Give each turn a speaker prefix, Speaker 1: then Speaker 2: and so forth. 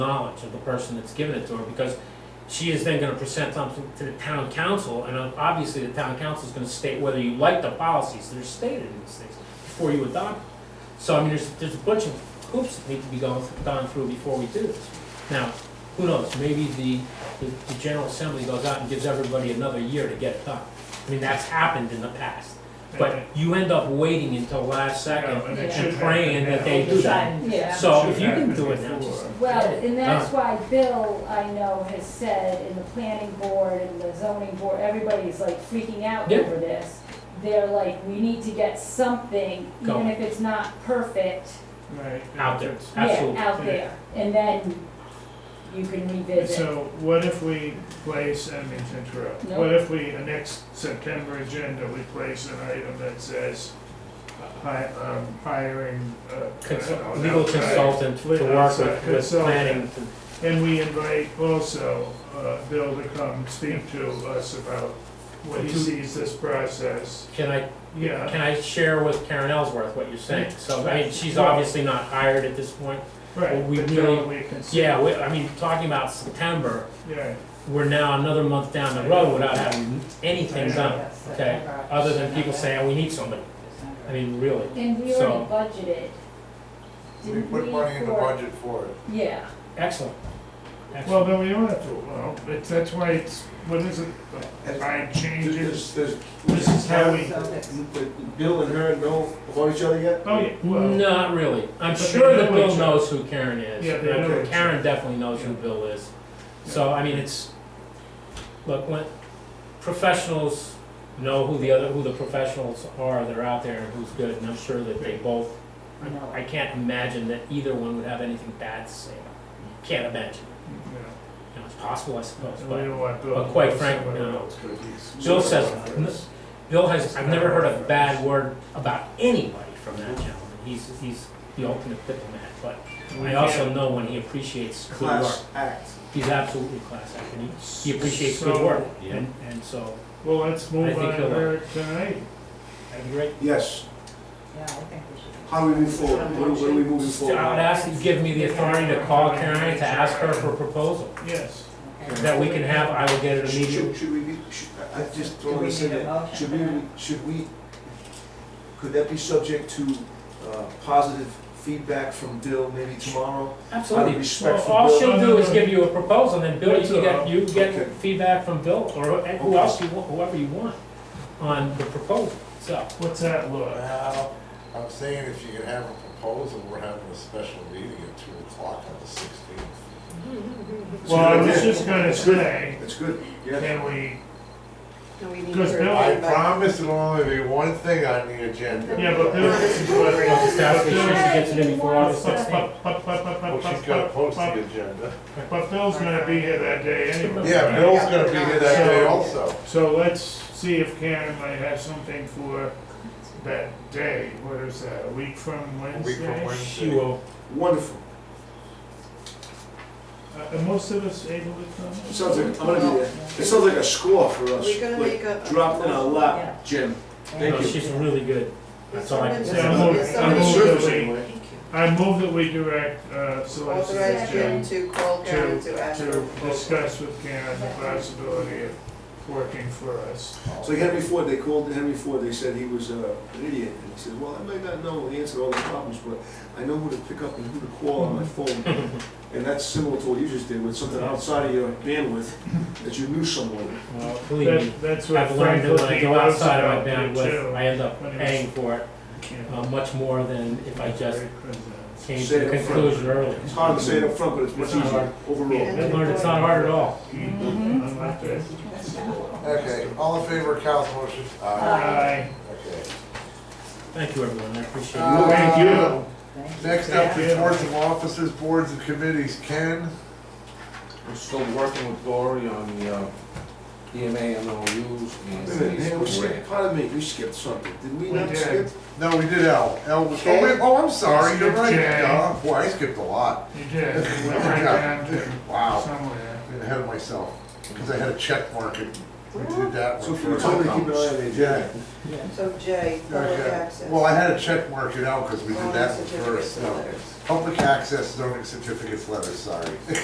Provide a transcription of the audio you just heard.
Speaker 1: knowledge of the person that's given it to her, because she is then gonna present something to the town council, and obviously the town council is gonna state whether you like the policies that are stated in these things before you adopt. them. So, I mean, there's, there's a bunch of hoops that need to be gone, gone through before we do this. Now, who knows, maybe the, the, the general assembly goes out and gives everybody another year to get it done. I mean, that's happened in the past, but you end up waiting until last second
Speaker 2: Yeah, and it
Speaker 1: and
Speaker 2: should
Speaker 1: praying
Speaker 2: happen
Speaker 1: that they
Speaker 2: now.
Speaker 1: do that.
Speaker 3: Yeah.
Speaker 1: So
Speaker 2: Should
Speaker 1: if you can
Speaker 2: happen
Speaker 1: do it now,
Speaker 2: before.
Speaker 1: just
Speaker 3: Well, and that's why Bill, I know, has said in the planning board and the zoning board, everybody's like freaking out
Speaker 1: Yeah.
Speaker 3: over this. They're like, we need to get something,
Speaker 1: Going.
Speaker 3: even if it's not perfect,
Speaker 2: Right.
Speaker 1: out there,
Speaker 3: yeah,
Speaker 1: absolutely.
Speaker 3: out there. And then you can revisit.
Speaker 2: So what if we place, I mean to interrupt,
Speaker 3: No.
Speaker 2: what if we, the next September agenda, we place an item that says hi, um, hiring, uh. I don't know,
Speaker 1: Consult- Legal
Speaker 2: outside.
Speaker 1: consultant to
Speaker 2: Outside
Speaker 1: work with, with
Speaker 2: consultant.
Speaker 1: planning to
Speaker 2: And we invite also, uh, Bill to come speak to us about what he
Speaker 1: To-
Speaker 2: sees this process,
Speaker 1: Can I,
Speaker 2: yeah,
Speaker 1: can I share with Karen Ellsworth what you're saying? So, I mean, she's
Speaker 2: Well-
Speaker 1: obviously not hired at this point.
Speaker 2: right,
Speaker 1: we
Speaker 2: but
Speaker 1: really-
Speaker 2: don't we consider.
Speaker 1: Yeah, we, I mean, talking about September,
Speaker 2: Yeah,
Speaker 1: we're now another month down the road without having anything
Speaker 2: Yeah.
Speaker 1: done, okay? Other than people saying, "Oh, we need somebody. I mean, really.
Speaker 3: And we
Speaker 1: So-
Speaker 3: already budgeted.
Speaker 4: We
Speaker 3: didn't
Speaker 4: put
Speaker 3: we,
Speaker 4: money in the
Speaker 3: for-
Speaker 4: budget for it.
Speaker 3: Yeah,
Speaker 1: Excellent.
Speaker 2: well,
Speaker 1: Excellent.
Speaker 2: then we don't have to, well, it's, that's why it's, what is it, I changes,
Speaker 4: There's, there's,
Speaker 2: This is how we-
Speaker 4: Bill and her know about each other yet?
Speaker 2: oh, yeah, well.
Speaker 1: Not really. I'm
Speaker 2: But they
Speaker 1: sure that
Speaker 2: know
Speaker 1: Bill
Speaker 2: each other.
Speaker 1: knows who Karen is.
Speaker 2: Yeah, they
Speaker 1: and
Speaker 2: know each
Speaker 1: Karen
Speaker 2: other.
Speaker 1: definitely knows who
Speaker 2: Yeah.
Speaker 1: Bill is. So, I mean, it's, look, when professionals know who the other, who the professionals are that are out there and who's good, and I'm sure that they both, I can't imagine that either one would have anything bad to say. Can't imagine.
Speaker 2: Yeah.
Speaker 1: You know, it's possible, I suppose,
Speaker 2: And we
Speaker 1: but
Speaker 2: don't want Bill
Speaker 1: but
Speaker 2: to
Speaker 1: quite
Speaker 2: know
Speaker 1: frank,
Speaker 2: somebody
Speaker 1: no.
Speaker 2: else, 'cause he's-
Speaker 1: Bill says- Bill has, I've never heard a bad word about anybody from that gentleman. He's, he's the ultimate diplomat, but I also know when he appreciates good work.
Speaker 4: Class act.
Speaker 1: He's absolutely class act, and he, he appreciates good
Speaker 2: So-
Speaker 1: work, and, and so,
Speaker 2: Well, let's
Speaker 1: I
Speaker 2: move
Speaker 1: think
Speaker 2: on
Speaker 1: he'll-
Speaker 2: there tonight.
Speaker 1: that'd be great.
Speaker 4: Yes,
Speaker 5: Yeah, I think we should.
Speaker 4: how do we move forward? What are, what are we moving
Speaker 1: So I would
Speaker 4: forward?
Speaker 1: ask you to give me the authority to call Karen to ask her for a proposal,
Speaker 2: Yes.
Speaker 5: okay.
Speaker 1: that we can have, I will get it
Speaker 4: Should,
Speaker 1: immediately.
Speaker 4: should- should we be, should, I- I just
Speaker 5: Do we
Speaker 4: want to say
Speaker 5: need a
Speaker 4: that,
Speaker 5: motion
Speaker 4: should
Speaker 5: for
Speaker 4: we,
Speaker 5: that?
Speaker 4: should we, could that be subject to, uh, positive feedback from Bill maybe tomorrow? Out
Speaker 1: Absolutely.
Speaker 4: of respect
Speaker 1: Well,
Speaker 4: for
Speaker 1: all
Speaker 4: Bill.
Speaker 1: she'll do is give you a proposal, and then Bill, you
Speaker 2: That's
Speaker 1: can
Speaker 2: all.
Speaker 1: get, you
Speaker 4: Okay.
Speaker 1: get feedback from Bill, or who
Speaker 4: Okay.
Speaker 1: else you want, whoever you want, on the proposal, so.
Speaker 2: What's that look?
Speaker 6: Well, I'm saying if you can have a proposal, we're having a special meeting at two o'clock on the sixteenth.
Speaker 2: Well, I was just gonna say,
Speaker 4: That's good, yeah.
Speaker 2: can we,
Speaker 7: No, we need
Speaker 2: Because
Speaker 7: her.
Speaker 2: Bill-
Speaker 6: I promise it'll only be one thing on the agenda.
Speaker 2: yeah, but Bill, this is
Speaker 1: Well,
Speaker 2: what.
Speaker 1: it's not- she gets it in before August
Speaker 2: But-
Speaker 1: 16th.
Speaker 2: but- but- but- but-
Speaker 6: Well,
Speaker 2: but-
Speaker 6: she's gotta post
Speaker 2: but-
Speaker 6: the agenda.
Speaker 2: But Bill's gonna be here that day anyway.
Speaker 6: Yeah, Bill's gonna be here that day also.
Speaker 2: So let's see if Karen might have something for that day, what is that, a week from
Speaker 6: week from
Speaker 2: Wednesday?
Speaker 6: Wednesday.
Speaker 1: She will,
Speaker 4: Wonderful.
Speaker 2: Uh, Are most of us able to come?
Speaker 4: It sounds like, I'm gonna be there. It sounds like a score for us,
Speaker 7: We're gonna
Speaker 4: like
Speaker 7: make a.
Speaker 4: dropped in our lap, Jim. Thank
Speaker 1: No,
Speaker 4: you.
Speaker 1: Oh, she's really good, that's all I can
Speaker 7: Is
Speaker 1: say.
Speaker 2: Yeah,
Speaker 7: somebody-
Speaker 2: I'm moving-
Speaker 7: is
Speaker 2: I'm
Speaker 7: somebody-
Speaker 2: moving that we-
Speaker 7: Thank you.
Speaker 2: I move that we direct, uh, Solicitor
Speaker 7: Authorize Jim
Speaker 2: Jim
Speaker 7: to call Karen
Speaker 2: to,
Speaker 7: to ask her.
Speaker 2: to discuss with Karen the possibility of working for us.
Speaker 4: So Henry Ford, they called Henry Ford, they said he was uh, an idiot, and he said, well, I might not know the answer to all the problems, but I know who to pick up and who to call on my phone. And that's similar to what you just did, with something outside of your bandwidth, that you knew someone.
Speaker 1: Well, believe me,
Speaker 2: That, that's what
Speaker 1: I've learned that when I
Speaker 2: Franklin
Speaker 1: go
Speaker 2: loves
Speaker 1: outside
Speaker 2: about
Speaker 1: of my
Speaker 2: me
Speaker 1: bandwidth,
Speaker 2: too.
Speaker 1: I end up
Speaker 2: When he was-
Speaker 1: paying for it uh, much more than if I just came to
Speaker 4: Say
Speaker 1: the
Speaker 4: it up front.
Speaker 1: conclusion early.
Speaker 4: It's hard to say it up front, but it's much
Speaker 1: It's not hard.
Speaker 4: easier overall.
Speaker 1: I learned it's not hard at all.
Speaker 3: Mhm.
Speaker 7: Mm-hmm.
Speaker 2: I'm not there.
Speaker 6: Okay, all in favor of Cal's motion?
Speaker 2: Aye.
Speaker 6: Okay.
Speaker 1: Thank you, everyone, I appreciate it.
Speaker 6: Uh,
Speaker 2: Thank you.
Speaker 5: Thank you.
Speaker 6: Next up, reports of officers, boards and committees. Ken?
Speaker 8: I'm still working with Glory on the uh, EMA MOUs and
Speaker 4: Wait a minute, man, we
Speaker 8: these
Speaker 4: skipped,
Speaker 8: grants.
Speaker 4: pardon me, we skipped something, did we
Speaker 2: We
Speaker 4: not
Speaker 2: did.
Speaker 4: skip?
Speaker 6: No, we did L. L was, oh, wait, oh, I'm sorry, you're right. Yeah, Boy, I skipped a lot.
Speaker 2: You did, we went right down to
Speaker 6: Wow.
Speaker 2: somewhere.
Speaker 6: Ahead of myself, because I had a check mark at We did that
Speaker 4: So
Speaker 6: one
Speaker 4: if you
Speaker 6: first.
Speaker 4: told me to keep an eye on the agenda.
Speaker 6: Yeah,
Speaker 7: So J, public
Speaker 6: okay.
Speaker 7: access.
Speaker 6: Well, I had to check mark it out because we did
Speaker 7: Oh,
Speaker 6: that one
Speaker 7: certificates
Speaker 6: first.
Speaker 7: and
Speaker 6: No.
Speaker 7: letters.
Speaker 6: Public access zoning certificates letters, sorry.